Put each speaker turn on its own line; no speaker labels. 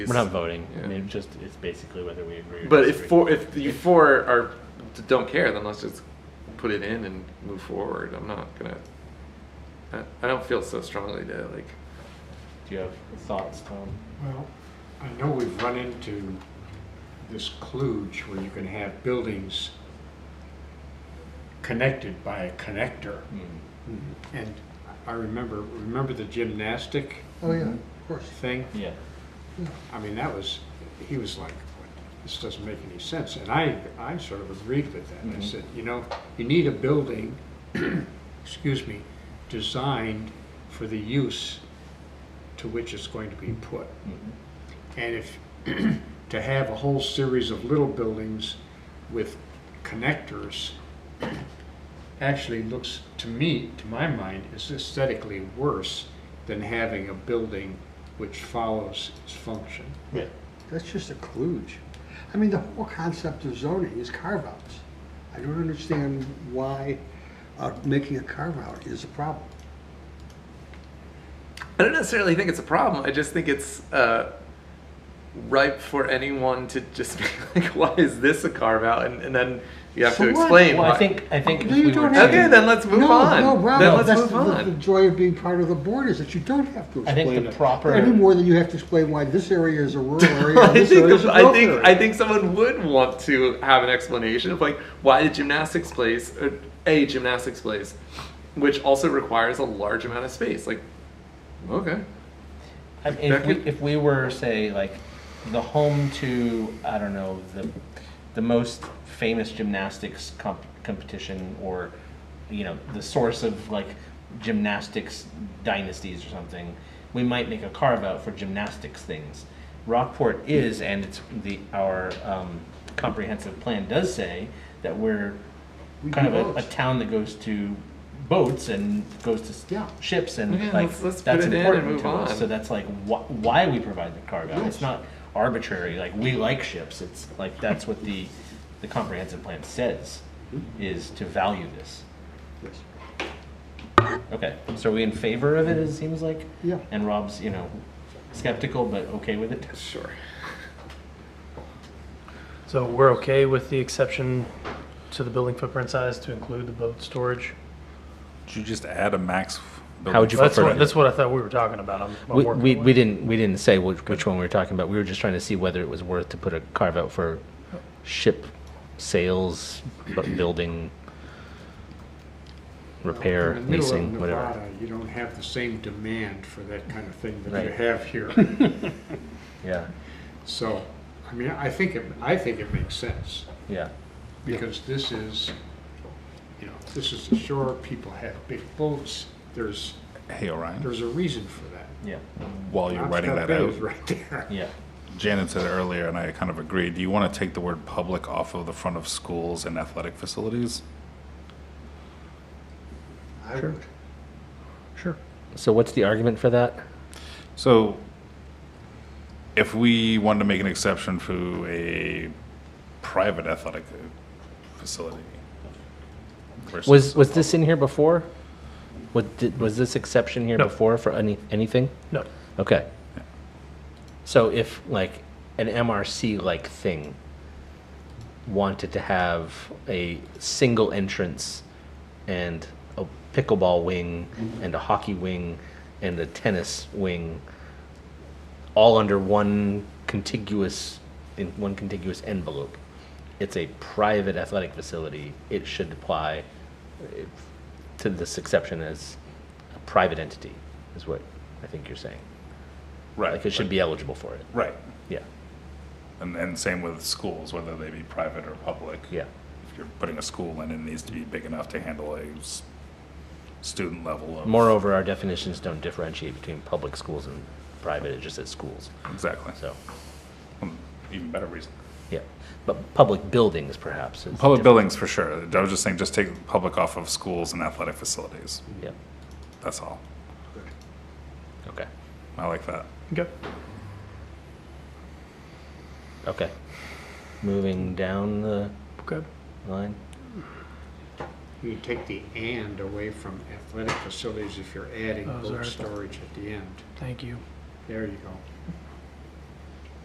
We're not voting. I
Yeah.
mean, just it's basically whether we agree. Or
But if
disagree.
four, if you four are don't care, then let's just put it in and move forward. I'm not gonna. I, I don't feel so strongly to like.
do you have thoughts, Tom?
Well, I know we've run into this kludge where you can have buildings connected by a connector.
Hmm.
And I remember, remember the gymnastic
Oh, yeah, of course.
thing?
Yeah.
I mean, that was, he was like, "What? this doesn't make any sense. And I, I sort of agreed with that. I
Mm-hmm.
Mhm.
said, you know, you need a building, excuse me, designed for the use to which it's going to be put.
Hmm.
And if, to have a whole series of little buildings with connectors actually looks, to me, to my mind, is aesthetically worse than having a building which follows its function.
Yeah.
That's just a kludge. I mean, the whole concept of zoning is carve-outs. I don't understand why uh, making a carve-out is a problem.
I don't necessarily think it's a problem. I just think it's uh, ripe for anyone to just be like, "Why is this a carve out?" And, and then you have
So
to
what?
explain.
Well, I
why.
think I think if
No, you
we were
don't
to-
have
Okay, then let's move
No,
on.
No, Rob,
then let's
that's
move
the-
on.
The joy of being part of the board is that you don't have to
I think
explain
the
it.
proper-
Any more than you have to explain why this area is a rural area and
I
this area
think,
is a
I
growth
think
area.
I think someone would want to have an explanation of like why the gymnastics place or a gymnastics place, which also requires a large amount of space. Like, okay,
I mean, if we,
Beckett?
if we were say like the home to I don't know the the most famous gymnastics comp- competition or you know the source of like gymnastics dynasties or something, we might make a carve out for gymnastics things. Rockport is, and it's the our um, comprehensive plan does say that we're
We
kind
do
of a, a
boats.
town that goes to boats and goes to s-
Yeah.
ships and
Yeah,
like
let's- let's put
that's
it in and
important
move
to us.
on.
So that's like wh- why we provide the carve out. It's
Yes.
not arbitrary. Like we like ships. It's like that's what the the comprehensive plan says
Mm-hmm.
is to value this.
Yes.
Okay, so are we in favor of it? It seems like.
Yeah.
And Rob's you know skeptical but okay with it.
sure.
So we're okay with the exception to the building footprint size to include the boat storage?
Should you just add a max?
How would you
That's
prefer
what,
it?
that's what I thought we were talking about. I'm- I'm
We,
working
we,
away.
we didn't we didn't say which, which one we were talking about. We were just trying to see whether it was worth to put a carve out for ship sales, bu- building, repair,
In the middle of
leasing, whatever.
Nevada, You don't have the same demand for that kind of thing that you
Right.
have here.
Yeah,
So, I mean, I think, it I think it makes sense,
yeah.
because this is, you know, this is the shore, people have big boats, there's,
Hey, Orion,
there's a reason for that.
Yeah,
while you're writing
Oxcart
that
Bay
out,
is right there.
yeah.
Janet said earlier, and I kind of agree, do you want to take the word public off of the front of schools and athletic facilities?
I would.
Sure.
So what's the argument for that?
So, if we wanted to make an exception for a private athletic facility, versus-
Was was this in here before? Was did, was this exception here
No.
before for any anything?
No,
Okay. So if like an MRC like thing wanted to have a single entrance and a pickleball wing and a hockey wing and a tennis wing all under one contiguous in one contiguous envelope. It's a private athletic facility. It should apply eh, to this exception as a private entity is what I think you're saying.
right,
Like it should be eligible for it.
right,
Yeah,
and and same with schools, whether they be private or public.
yeah,
if you're putting a school in, it needs to be big enough to handle a s- student level of.
Moreover, our definitions don't differentiate between public schools and private, it just says schools,
Exactly.
so,
Hmm, Even better reason.
yeah. But public buildings perhaps is.
Public
different.
buildings for sure. I was just saying, just take public off of schools and athletic facilities. That's all.
Yeah, okay,
I like that.
okay.
okay. Moving down the
Okay.
line,
You take the "and" away from athletic facilities if you're adding
Oh,
boat
sorry.
storage at the end.
Thank you.
There you go.